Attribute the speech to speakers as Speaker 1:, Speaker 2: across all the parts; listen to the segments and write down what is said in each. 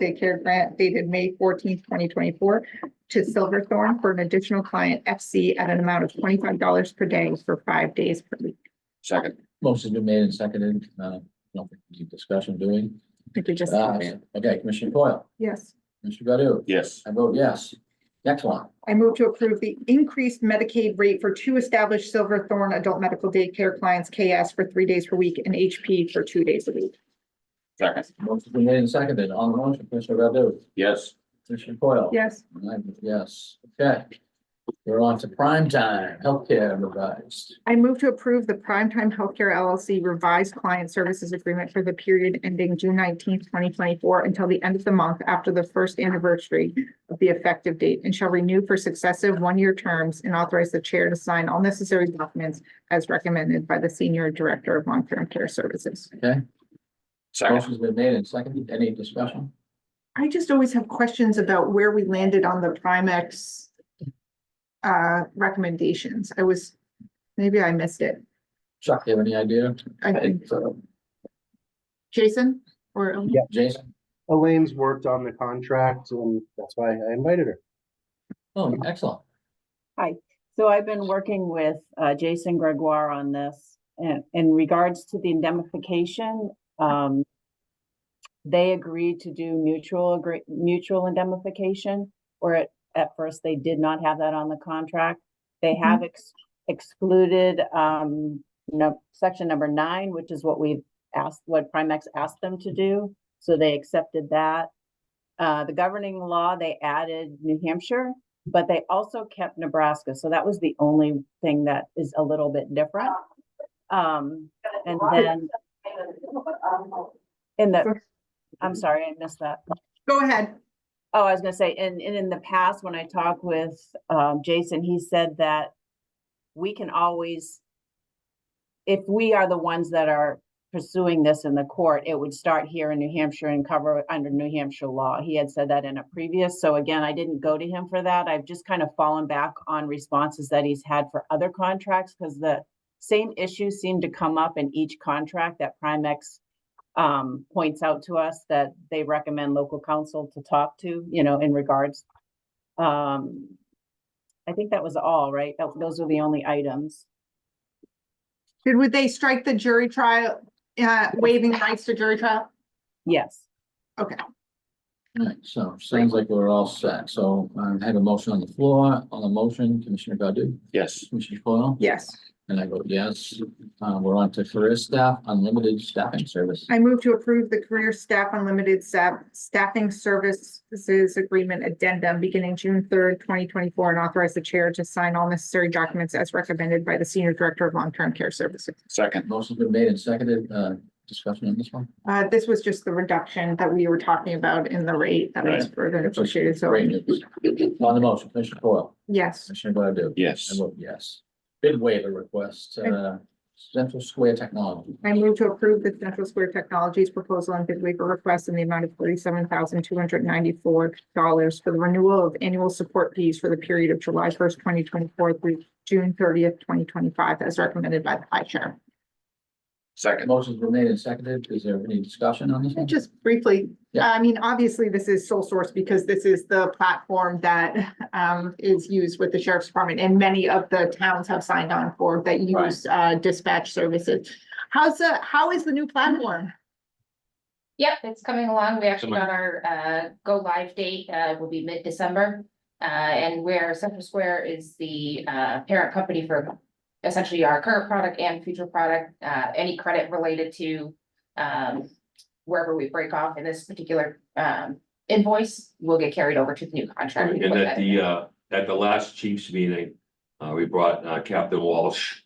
Speaker 1: daycare grant dated May fourteenth, twenty twenty-four to Silverthorne for an additional client FC at an amount of twenty-five dollars per day for five days per week.
Speaker 2: Second,
Speaker 3: Motion's been made and seconded, uh, no discussion doing.
Speaker 1: Did you just?
Speaker 3: Uh, Okay, Commissioner Coyle,
Speaker 1: Yes.
Speaker 3: Commissioner Godu?
Speaker 2: yes,
Speaker 3: I vote yes. Next one,
Speaker 1: I move to approve the increased Medicaid rate for two established Silverthorne adult medical daycare clients, KS for three days per week and HP for two days a week.
Speaker 2: second,
Speaker 3: motion's been made and seconded, on the motion, Commissioner Godu?
Speaker 2: yes,
Speaker 3: Commissioner Coyle?
Speaker 1: Yes.
Speaker 3: And I vote yes, okay. We're on to prime time, healthcare revised.
Speaker 1: I move to approve the Primetime Healthcare LLC revised client services agreement for the period ending June nineteenth, twenty twenty-four until the end of the month after the first anniversary of the effective date and shall renew for successive one-year terms and authorize the chair to sign all necessary documents as recommended by the Senior Director of Long-Term Care Services.
Speaker 2: second,
Speaker 3: Motion's been made and seconded, any discussion?
Speaker 1: I just always have questions about where we landed on the Primex uh, recommendations. I was, maybe I missed it.
Speaker 3: Chuck, you have any idea?
Speaker 1: I think,
Speaker 3: so.
Speaker 1: Jason or?
Speaker 4: Yeah.
Speaker 3: Jason?
Speaker 4: Elaine's worked on the contract and that's why I invited her.
Speaker 3: Oh, excellent.
Speaker 5: So I've been working with uh, Jason Gregoire on this. And in regards to the indemnification, um, they agreed to do mutual agree, mutual indemnification, where at, at first they did not have that on the contract. They have ex- excluded, um, no, section number nine, which is what we've asked, what Primex asked them to do. So they accepted that. Uh, the governing law, they added New Hampshire but they also kept Nebraska. So that was the only thing that is a little bit different. Um, and then in the, I'm sorry, I missed that.
Speaker 1: Go ahead.
Speaker 5: Oh, I was gonna say, and, and in the past, when I talked with, um, Jason, he said that we can always, if we are the ones that are pursuing this in the court, it would start here in New Hampshire and cover it under New Hampshire law. He had said that in a previous, so again, I didn't go to him for that. I've just kind of fallen back on responses that he's had for other contracts because the same issues seem to come up in each contract that Primex um, points out to us that they recommend local council to talk to, you know, in regards. Um, I think that was all, right? That, those are the only items.
Speaker 1: Did, would they strike the jury trial, uh, waiving rights to jury trial?
Speaker 5: Yes.
Speaker 1: Okay, Hmm.
Speaker 3: Alright, so sounds like we're all set. So I have a motion on the floor. On the motion, Commissioner Godu,
Speaker 2: yes,
Speaker 3: Commissioner Coyle?
Speaker 1: yes.
Speaker 3: And I vote yes. Uh, we're on to career staff, unlimited staffing service.
Speaker 1: I move to approve the Career Staff Unlimited Staff Staffing Services Agreement Addendum beginning June third, twenty twenty-four, and authorize the chair to sign all necessary documents as recommended by the Senior Director of Long-Term Care Services.
Speaker 2: second,
Speaker 3: Motion's been made and seconded, uh, discussion on this one.
Speaker 1: Uh, this was just the reduction that we were talking about in the rate that was further negotiated, so,
Speaker 3: Great news. On the motion, Commissioner Coyle,
Speaker 1: yes.
Speaker 3: Commissioner Godu?
Speaker 2: yes,
Speaker 3: I vote yes. Bid waiver request, uh, Central Square Technology.
Speaker 1: I move to approve the Central Square Technologies proposal and bid waiver request in the amount of forty-seven thousand two hundred ninety-four dollars for the renewal of annual support fees for the period of July first, twenty twenty-four through June thirtieth, twenty twenty-five, as recommended by the high chair.
Speaker 2: second,
Speaker 3: Motion's been made and seconded. Is there any discussion on this one?
Speaker 1: Just briefly,
Speaker 3: Yeah.
Speaker 1: I mean, obviously, this is sole source because this is the platform that um is used with the sheriff's department and many of the towns have signed on for that use uh dispatch services. How's the, how is the new platform?
Speaker 6: Yep, it's coming along. We actually got our uh go live date, uh will be mid-December. Uh and where Central Square is the uh parent company for essentially our current product and future product, uh any credit related to um wherever we break off in this particular um invoice will get carried over to the new contract.
Speaker 7: And at the, uh, at the last chief's meeting, uh, we brought uh, Captain Walsh.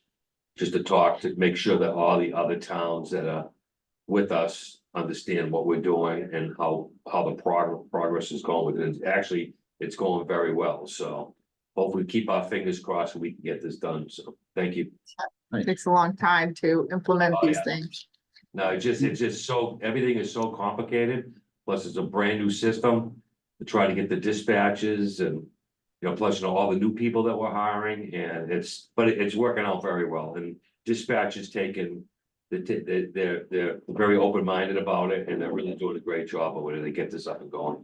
Speaker 7: Just to talk, to make sure that all the other towns that are with us understand what we're doing and how, how the progress, progress is going. And it's actually, it's going very well, so. Hopefully keep our fingers crossed and we can get this done, so, thank you.
Speaker 1: It Takes a long time to implement
Speaker 7: Oh,
Speaker 1: these
Speaker 7: yeah.
Speaker 1: things.
Speaker 7: No, it's just, it's just so, everything is so complicated, plus it's a brand new system. To try to get the dispatches and, you know, plus you know, all the new people that we're hiring and it's, but it- it's working out very well and dispatch has taken. They're, t- they're, they're, they're very open-minded about it and they're really doing a great job of it. and They get this up and going.